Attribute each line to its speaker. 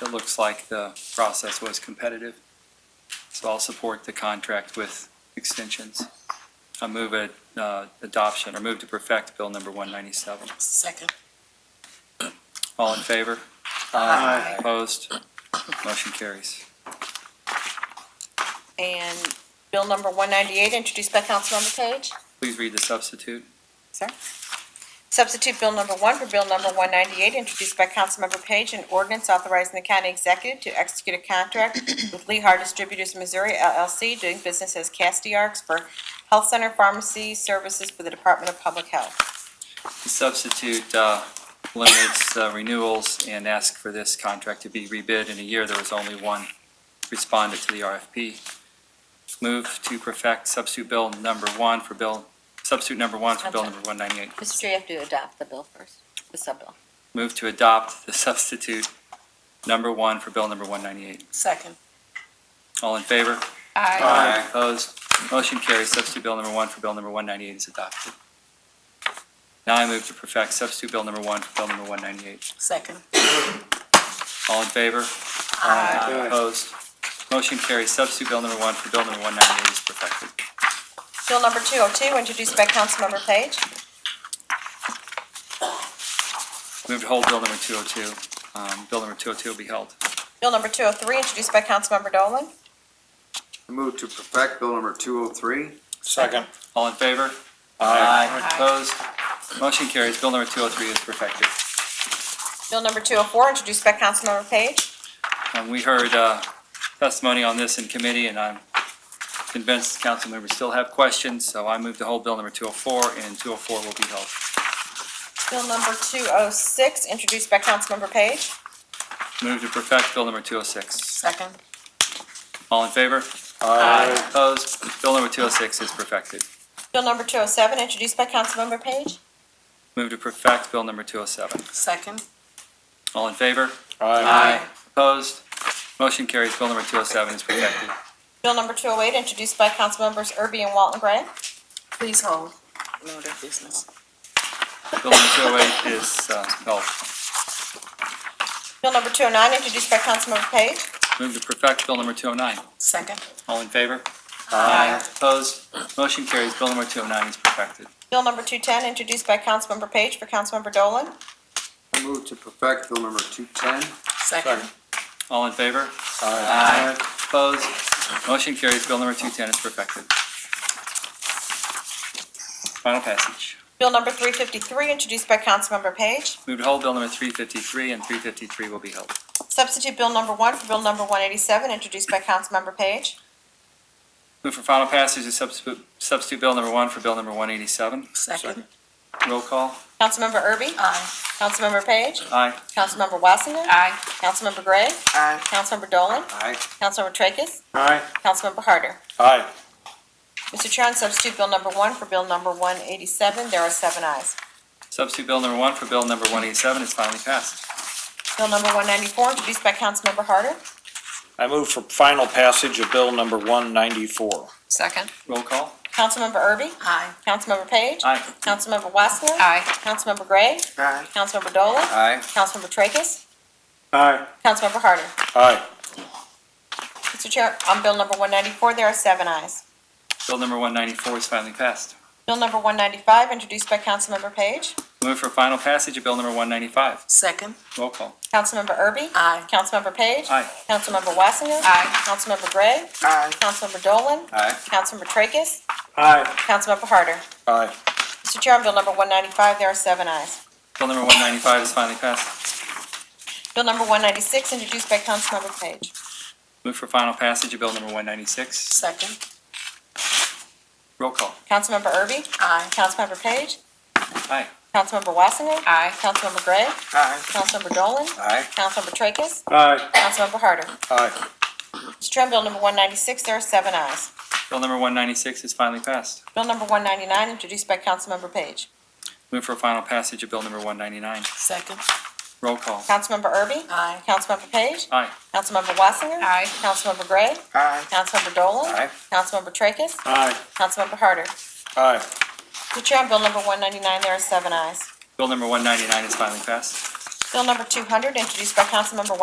Speaker 1: It looks like the process was competitive. So I'll support the contract with extensions. I move it, uh, adoption, or move to perfect Bill number 197.
Speaker 2: Second.
Speaker 1: All in favor?
Speaker 2: Aye.
Speaker 1: Opposed? Motion carries.
Speaker 2: And bill number 198, introduced by Councilmember Page.
Speaker 1: Please read the substitute.
Speaker 2: Sir. Substitute bill number one for bill number 198, introduced by Councilmember Page, an ordinance authorizing the county executive to execute a contract with Lehigh Distributors Missouri LLC, doing business as Castiarks for health center pharmacy services for the Department of Public Health.
Speaker 1: The substitute uh, eliminates uh, renewals and asks for this contract to be rebid in a year. There was only one respondent to the RFP. Move to perfect substitute bill number one for bill, substitute number one for bill number 198.
Speaker 3: Mr. Chair, you have to adopt the bill first, the sub-bill.
Speaker 1: Move to adopt the substitute number one for bill number 198.
Speaker 2: Second.
Speaker 1: All in favor? Aye. Opposed? Motion carries. Substitute bill number one for bill number 198 is adopted. Now I move to perfect substitute bill number one for bill number 198.
Speaker 2: Second.
Speaker 1: All in favor? Aye. Opposed? Motion carries. Substitute bill number one for bill number 198 is perfected.
Speaker 2: Bill number 202, introduced by Councilmember Page.
Speaker 1: Move to hold bill number 202. Um, Bill number 202 will be held.
Speaker 2: Bill number 203, introduced by Councilmember Dolan.
Speaker 4: I move to perfect bill number two oh three.
Speaker 5: Second.
Speaker 1: All in favor? Aye. Opposed? Motion carries. Bill number 203 is perfected.
Speaker 2: Bill number 204, introduced by Councilmember Page.
Speaker 1: Um, We heard uh, testimony on this in committee, and I'm convinced council members still have questions, so I move to hold Bill number 204, and 204 will be held.
Speaker 2: Bill number 206, introduced by Councilmember Page.
Speaker 1: Move to perfect Bill number 206.
Speaker 2: Second.
Speaker 1: All in favor? Aye. Opposed? Bill number 206 is perfected.
Speaker 2: Bill number 207, introduced by Councilmember Page.
Speaker 1: Move to perfect Bill number 207.
Speaker 2: Second.
Speaker 1: All in favor?
Speaker 5: Aye.
Speaker 1: Opposed? Motion carries. Bill number 207 is perfected.
Speaker 2: Bill number 208, introduced by Councilmembers Erby and Walton Gray.
Speaker 3: Please hold.
Speaker 1: Bill number 208 is uh, held.
Speaker 2: Bill number 209, introduced by Councilmember Page.
Speaker 1: Move to perfect Bill number 209.
Speaker 2: Second.
Speaker 1: All in favor? Aye. Opposed? Motion carries. Bill number 209 is perfected.
Speaker 2: Bill number 210, introduced by Councilmember Page for Councilmember Dolan.
Speaker 4: I move to perfect bill number two ten.
Speaker 5: Second.
Speaker 1: All in favor?
Speaker 5: Aye.
Speaker 1: Aye. Opposed? Motion carries. Bill number 210 is perfected. Final passage.
Speaker 2: Bill number 353, introduced by Councilmember Page.
Speaker 1: Move to hold Bill number 353, and 353 will be held.
Speaker 2: Substitute Bill number 1 for Bill number 187, introduced by Councilmember Page.
Speaker 1: Move for final passage of substitute substitute Bill number 1 for Bill number 187.
Speaker 5: Second.
Speaker 1: Roll call.
Speaker 2: Councilmember Erby? Aye. Councilmember Page?
Speaker 1: Aye.
Speaker 2: Councilmember Wassenden? Aye. Councilmember Gray? Aye. Councilmember Dolan?
Speaker 4: Aye.
Speaker 2: Councilmember Tracus?
Speaker 5: Aye.
Speaker 2: Councilmember Harder?
Speaker 5: Aye.
Speaker 2: Mr. Chair, on substitute Bill number 1 for Bill number 187, there are seven ayes.
Speaker 1: Substitute Bill number 1 for Bill number 187 is finally passed.
Speaker 2: Bill number 194, introduced by Councilmember Harder.
Speaker 5: I move for final passage of bill number one ninety-four.
Speaker 3: Second.
Speaker 1: Roll call.
Speaker 2: Councilmember Erby?
Speaker 3: Aye.
Speaker 2: Councilmember Page?
Speaker 1: Aye.
Speaker 2: Councilmember Wassner?
Speaker 3: Aye.
Speaker 2: Councilmember Gray?
Speaker 4: Aye.
Speaker 2: Councilmember Dolan?
Speaker 4: Aye.
Speaker 2: Councilmember Tracus?
Speaker 5: Aye.
Speaker 2: Councilmember Harder?
Speaker 5: Aye.
Speaker 2: Mr. Chair, on bill number 194, there are seven ayes.
Speaker 1: Bill number 194 is finally passed.
Speaker 2: Bill number 195, introduced by Councilmember Page.
Speaker 1: Move for final passage of Bill number 195.
Speaker 3: Second.
Speaker 1: Roll call.
Speaker 2: Councilmember Erby?
Speaker 3: Aye.
Speaker 2: Councilmember Page?
Speaker 1: Aye.
Speaker 2: Councilmember Wassinger?
Speaker 3: Aye.
Speaker 2: Councilmember Gray?
Speaker 3: Aye.
Speaker 2: Councilmember Dolan?
Speaker 4: Aye.
Speaker 2: Councilmember Tracus?
Speaker 5: Aye.
Speaker 2: Councilmember Harder?
Speaker 5: Aye.
Speaker 2: Mr. Chair, on bill number 195, there are seven ayes.
Speaker 1: Bill number 195 is finally passed.
Speaker 2: Bill number 196, introduced by Councilmember Page.
Speaker 1: Move for final passage of Bill number 196.
Speaker 3: Second.
Speaker 1: Roll call.
Speaker 2: Councilmember Erby?
Speaker 3: Aye.
Speaker 2: Councilmember Page?
Speaker 1: Aye.
Speaker 2: Councilmember Wassinger?
Speaker 3: Aye.
Speaker 2: Councilmember Gray?
Speaker 4: Aye.
Speaker 2: Councilmember Dolan?
Speaker 4: Aye.
Speaker 2: Councilmember Tracus?
Speaker 5: Aye.
Speaker 2: Councilmember Harder?
Speaker 5: Aye.
Speaker 2: Mr. Chair, on bill number 196, there are seven ayes.
Speaker 1: Bill number 196 is finally passed.
Speaker 2: Bill number 199, introduced by Councilmember Page.
Speaker 1: Move for final passage of Bill number 199.
Speaker 3: Second.
Speaker 1: Roll call.
Speaker 2: Councilmember Erby?
Speaker 3: Aye.
Speaker 2: Councilmember Page?
Speaker 1: Aye.
Speaker 2: Councilmember Wassinger?
Speaker 3: Aye.
Speaker 2: Councilmember Gray?
Speaker 4: Aye.
Speaker 2: Councilmember Dolan?
Speaker 4: Aye.
Speaker 2: Councilmember Tracus?
Speaker 5: Aye.
Speaker 2: Councilmember Harder?
Speaker 5: Aye.
Speaker 2: Mr. Chair, on bill number 199, there are seven ayes.
Speaker 1: Bill number 199 is finally passed.
Speaker 2: Bill number 200, introduced by Councilmember